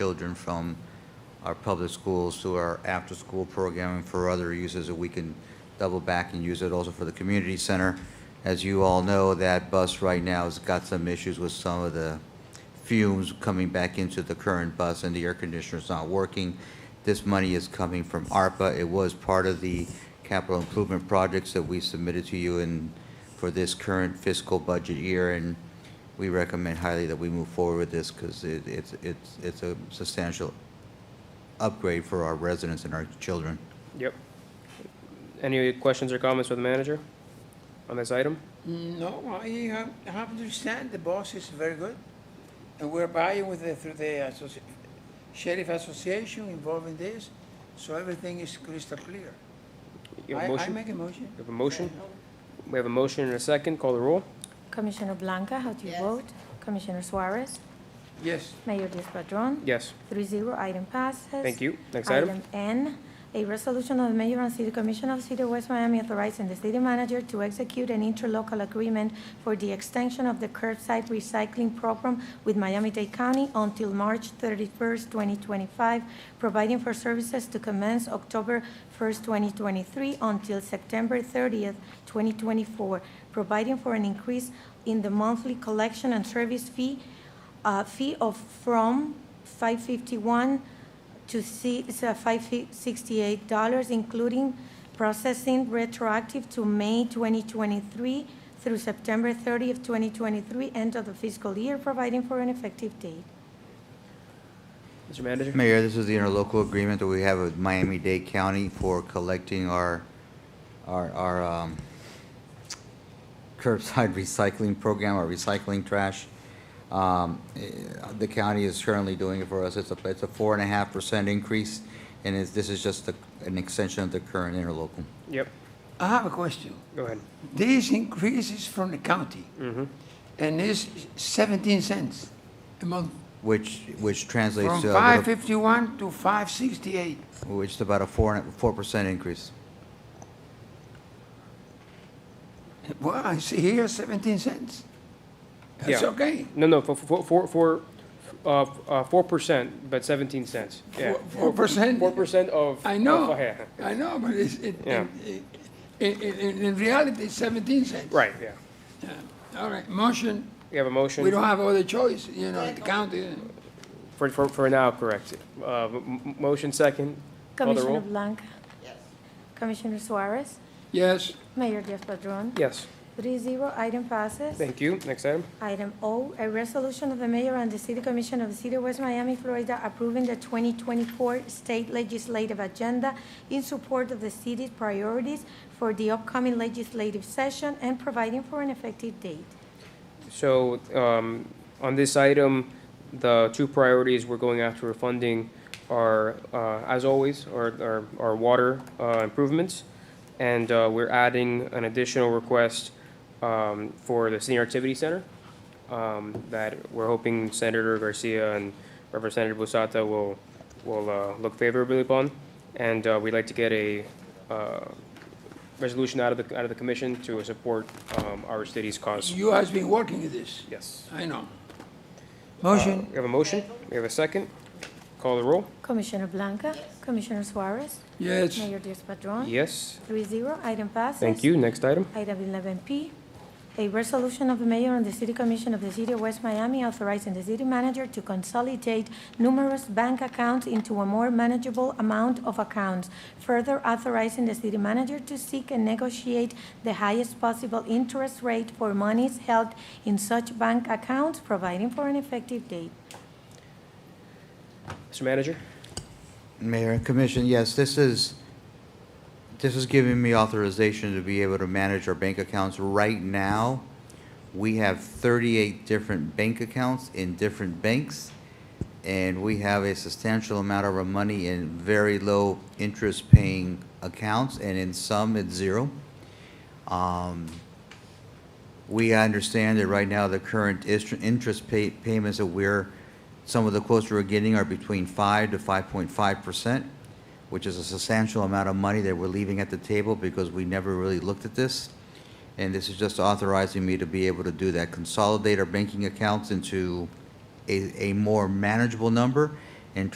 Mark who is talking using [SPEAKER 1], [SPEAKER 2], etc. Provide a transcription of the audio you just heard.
[SPEAKER 1] children from our public schools to our after-school programming for other uses, that we can double back and use it also for the community center. As you all know, that bus right now has got some issues with some of the fumes coming back into the current bus, and the air conditioner's not working. This money is coming from ARPA. It was part of the capital improvement projects that we submitted to you in, for this current fiscal budget year, and we recommend highly that we move forward with this, because it, it's, it's, it's a substantial upgrade for our residents and our children.
[SPEAKER 2] Yep. Any questions or comments with the manager on this item?
[SPEAKER 3] No, I have, I have to understand the boss is very good. And we're buying with the, through the associ- sheriff association involved in this, so everything is crystal clear.
[SPEAKER 2] You
[SPEAKER 3] I,
[SPEAKER 2] have a
[SPEAKER 3] I
[SPEAKER 2] motion?
[SPEAKER 3] make a motion.
[SPEAKER 2] You have a motion? We have a motion and a second. Call the roll.
[SPEAKER 4] Commissioner Blanca, how do you vote? Commissioner Suarez?
[SPEAKER 3] Yes,
[SPEAKER 4] Mayor Diaz-Padrón?
[SPEAKER 2] Yes.
[SPEAKER 4] Three zero, item passes.
[SPEAKER 2] Thank you. Next item.
[SPEAKER 4] N, a resolution of the Mayor and City Commission of the City of West Miami authorizing the city manager to execute an interlocal agreement for the extension of the curbside recycling program with Miami-Dade County until March thirty-first, twenty twenty-five, providing for services to commence October first, twenty twenty-three until September thirtieth, twenty twenty-four, providing for an increase in the monthly collection and service fee, uh, fee of from five fifty-one to see, it's a five sixty-eight dollars, including processing retroactive to May twenty twenty-three through September thirtieth, twenty twenty-three, end of the fiscal year, providing for an effective date.
[SPEAKER 2] Mr. Manager?
[SPEAKER 1] Mayor, this is the interlocal agreement that we have with Miami-Dade County for collecting our, our, our um, curbside recycling program, our recycling trash. Um, eh, The county is currently doing it for us. It's a, it's a four and a half percent increase, and it's, this is just a- an extension of the current interlocal.
[SPEAKER 2] Yep.
[SPEAKER 3] I have a question.
[SPEAKER 2] Go ahead.
[SPEAKER 3] This increase is from the county.
[SPEAKER 2] Mm-hmm.
[SPEAKER 3] And it's seventeen cents a month,
[SPEAKER 1] Which, which translates
[SPEAKER 3] from
[SPEAKER 1] to, a
[SPEAKER 3] five
[SPEAKER 1] little-
[SPEAKER 3] fifty-one to five sixty-eight.
[SPEAKER 1] which is about a four, and a- four percent increase.
[SPEAKER 3] Well, I see here seventeen cents. That's
[SPEAKER 2] Yeah.
[SPEAKER 3] okay.
[SPEAKER 2] No, no, for, for, for, for, uh, uh, four percent, but seventeen cents. Yeah.
[SPEAKER 3] Four- Four percent.
[SPEAKER 2] Four percent of.
[SPEAKER 3] I know,
[SPEAKER 2] of- Oh, yeah.
[SPEAKER 3] I know, but it's, it,
[SPEAKER 2] Yeah.
[SPEAKER 3] in, in, in, in reality, it's seventeen cents.
[SPEAKER 2] Right, yeah.
[SPEAKER 3] Yeah. All right, motion,
[SPEAKER 2] We have a motion.
[SPEAKER 3] we don't have other choice, you know, the county, uh,
[SPEAKER 2] For, for, for now, correct. Uh, m- m- motion second. Call the
[SPEAKER 4] Commissioner
[SPEAKER 2] roll.
[SPEAKER 4] Blanca? Commissioner Suarez?
[SPEAKER 3] yes,
[SPEAKER 4] Mayor Diaz-Padrón?
[SPEAKER 2] Yes.
[SPEAKER 4] Three zero, item passes.
[SPEAKER 2] Thank you. Next item.
[SPEAKER 4] Item O, a resolution of the mayor and the city commission of the city of West Miami, Florida, approving the 2024 state legislative agenda in support of the city's priorities for the upcoming legislative session and providing for an effective date.
[SPEAKER 2] So, um, on this item, the two priorities we're going after for funding are, uh, as always, are, are, are water, uh, improvements. And, uh, we're adding an additional request, um, for the senior activity center. Um, that we're hoping Senator Garcia and Representative Busata will, will, uh, look favorably upon. And, uh, we'd like to get a, uh, resolution out of the, out of the commission to support, um, our city's cause.
[SPEAKER 3] you has been working with this,
[SPEAKER 2] Yes.
[SPEAKER 3] I know.
[SPEAKER 2] Uh,
[SPEAKER 3] Motion,
[SPEAKER 2] We have a motion, we have a second. Call the roll.
[SPEAKER 4] Commissioner Blanca? Commissioner Suarez?
[SPEAKER 3] yes,
[SPEAKER 4] Mayor Diaz-Padrón?
[SPEAKER 2] Yes,
[SPEAKER 4] Three zero, item passes.
[SPEAKER 2] thank you. Next item.
[SPEAKER 4] Item 11P, a resolution of the mayor and the city commission of the city of West Miami authorizing the city manager to consolidate numerous bank accounts into a more manageable amount of accounts, further authorizing the city manager to seek and negotiate the highest possible interest rate for monies held in such bank accounts, providing for an effective date.
[SPEAKER 2] Mr. Manager?
[SPEAKER 1] Mayor and Commission, yes, this is, this is giving me authorization to be able to manage our bank accounts. Right now, we have 38 different bank accounts in different banks, and we have a substantial amount of our money in very low interest-paying accounts, and in some, it's zero. Um, we understand that right now, the current is- interest pay- payments that we're, some of the quotes we're getting are between 5 to 5.5%, which is a substantial amount of money that we're leaving at the table because we never really looked at this. And this is just authorizing me to be able to do that, consolidate our banking accounts into a, a more manageable number